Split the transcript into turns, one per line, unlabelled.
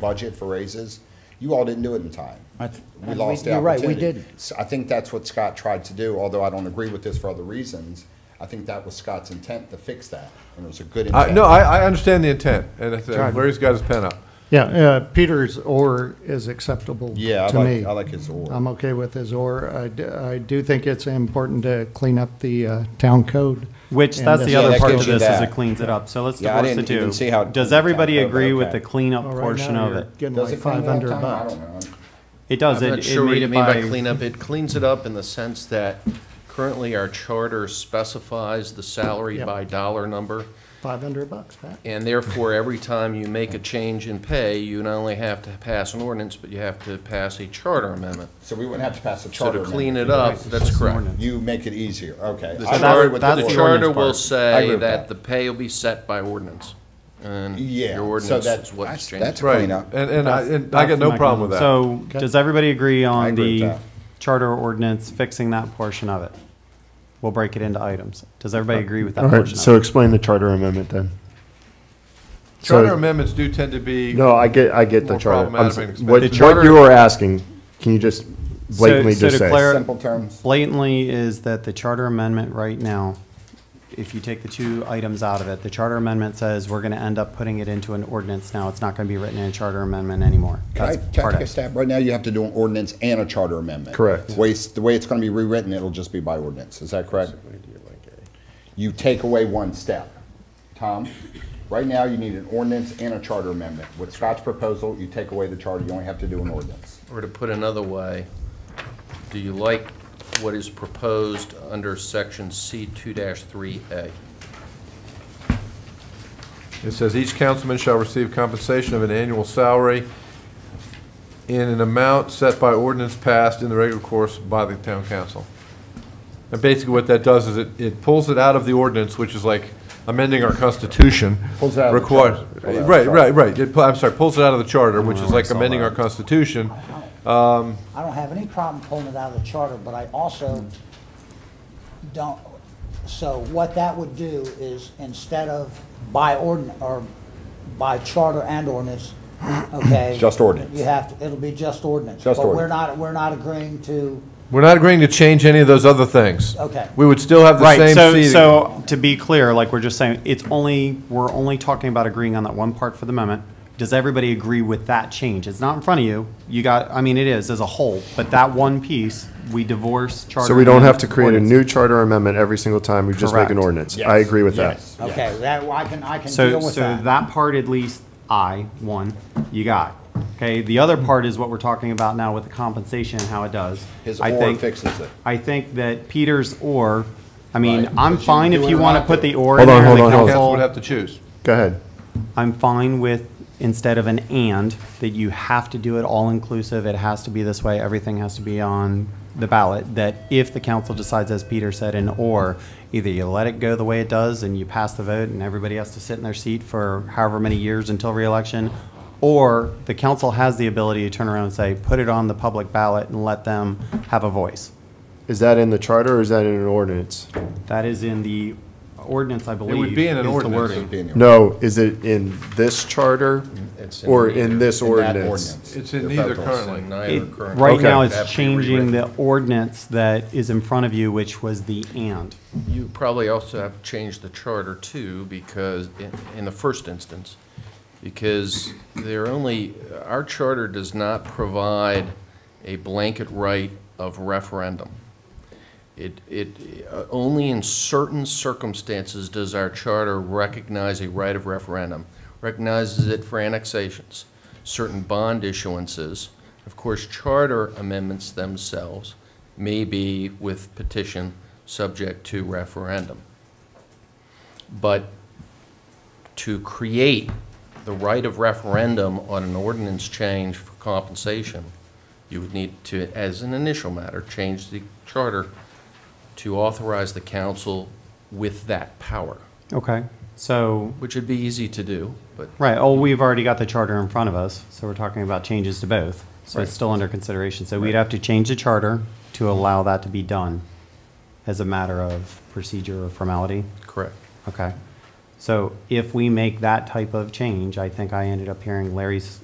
budget for raises. You all didn't do it in time.
I th-
We
and
lost the opportunity.
You're right, we didn't.
So I think that's what Scott tried to do, although I don't agree with this for other reasons. I think that was Scott's intent to fix that, and it was a good
I-
intent.
Uh, No, I, I understand the intent, and it's-
Right.
Larry's got his pen up.
Yeah, uh, Peter's or is acceptable
Yeah, I
to
like,
me.
I like his or.
I'm okay with his or. I d- I do think it's important to clean up the uh, town code.
Which,
And
that's the
Yeah,
other
that
part of
gives you
this, is
that.
it cleans it up, so let's
Yeah, I
divorce the
didn't even
two.
see how it
Does
cleans
everybody
it up,
agree with
okay.
the cleanup
Well, "Oh, right
portion
now
of
you're
it?
Getting
Does
like
it clean
five
it up,
hundred
Tom? I
bucks.
don't know.
It does,
I'm
it,
not
it
sure what you
made
mean by
by,
cleanup. It cleans it up in the sense that currently our charter specifies the salary
Yep.
by dollar number.
Five hundred bucks, Pat.
And therefore, every time you make a change in pay, you not only have to pass an ordinance, but you have to pass a charter amendment.
So we wouldn't have to pass a
So
charter
to clean
amendment.
it up, that's correct.
You make it easier, okay.
The
I'm sorry
that's-
charter,
with
that's
the
the
board.
charter
ordinance part.
will
I agree
say
with that.
that the pay will be set by ordinance. And
Yeah,
your
so
ordinance
that's,
is what's
that's,
changing.
that's a
Right,
cleanup.
and, and I, and I got no problem with that.
so,
Okay.
does everybody agree on
agree with
the
that.
charter ordinance fixing that portion of it? We'll break it into items. Does everybody agree with that portion
so
of it?
explain the charter amendment then.
Charter
so-
amendments do tend to be,
No, I get, I get the
More
charter. I'm
problematic
s-
than
What,
expected. The
what
charter-
you were asking, can you just blatantly
so
just
to
say?
clar-
Simple terms.
Blatantly is that the charter amendment right now, if you take the two items out of it, the charter amendment says we're gonna end up putting it into an ordinance now. It's not gonna be written in a charter amendment anymore.
Can I,
That's
can I
part
take
of
a
it.
stab? Right now, you have to do an ordinance and a charter amendment.
Correct.
The way, it's- the way it's gonna be rewritten, it'll just be by ordinance, is that correct? You take away one step. Tom, right now, you need an ordinance and a charter amendment. With Scott's proposal, you take away the charter, you only have to do an ordinance.
Or to put another way, do you like what is proposed under section C two three A?
it says each councilman shall receive compensation of an annual salary in an amount set by ordinance passed in the regular course by the town council. And basically what that does is it, it pulls it out of the ordinance, which is like amending our constitution.
Pulls it out of the
Requires-
charter. Pulls it out of the
Right,
charter.
right, right. It pu- I'm sorry, pulls it out of the charter, which is like amending our constitution.
I don't have any problem pulling it out of the charter, but I also
Hmm.
don't, so what that would do is instead of by ordin, or by charter and ordinance, okay?
Just ordinance.
You have, to. it'll be just ordinance.
Just
But we're
ordinance.
not, we're not agreeing to,
We're not agreeing to change any of those other things.
Okay.
We would still have the
Right,
same
so,
seating.
so to be clear, like we're just saying, it's only, we're only talking about agreeing on that one part for the moment. Does everybody agree with that change? It's not in front of you. You got, I mean, it is as a whole, but that one piece, we divorce charter.
So we don't have
amendment
to create a
ordinance.
new charter amendment every single time, we just make an
Correct.
ordinance. I agree with that.
okay, that, I can, I can
So,
deal with
so
that.
that part at least, I, one, you got. Okay, the other part is what we're talking about now with the compensation and how it does.
His
I
or
think-
fixes it.
I think that Peter's or, I mean,
Right,
I'm
but you
fine
do
if
it
you
or
want to
not
put
do
the
it.
or in
Hold on,
there.
hold
the
on, hold on.
Council
council-
would have to choose.
Go ahead.
I'm fine with, instead of an and, that you have to do it all-inclusive, it has to be this way, everything has to be on the ballot, that if the council decides, as Peter said, an or, either you let it go the way it does and you pass the vote and everybody has to sit in their seat for however many years until reelection, or the council has the ability to turn around and say, put it on the public ballot and let them have a voice.
Is that in the charter or is that in an ordinance?
That is in the ordinance, I believe.
be in an
is the
ordinance.
wording.
It'd be in the
No, is it in this charter
It's in
or
neither.
in this
In that
ordinance?
It's in
The
neither
federal.
currently.
It-
Neither current-
Right
Okay.
now,
Have
it's
to be
changing the
rewritten.
ordinance that is in front of you, which was the and.
You probably also have to change the charter too, because, in, in the first instance, because they're only, our charter does not provide a blanket right of referendum. It, it, uh, only in certain circumstances does our charter recognize a right of referendum. Recognizes it for annexations, certain bond issuances. Of course, charter amendments themselves may be with petition subject to referendum. But to create the right of referendum on an ordinance change for compensation, you would need to, as an initial matter, change the charter to authorize the council with that power,
Okay. So,
which would be easy to do, but
right, oh, we've already got the charter in front of us, so we're talking about changes to both. So
Right.
it's still under consideration. So we'd have to change the charter to allow that to be done as a matter of procedure or formality.
correct.
Okay. So if we make that type of change, I think I ended up hearing Larry's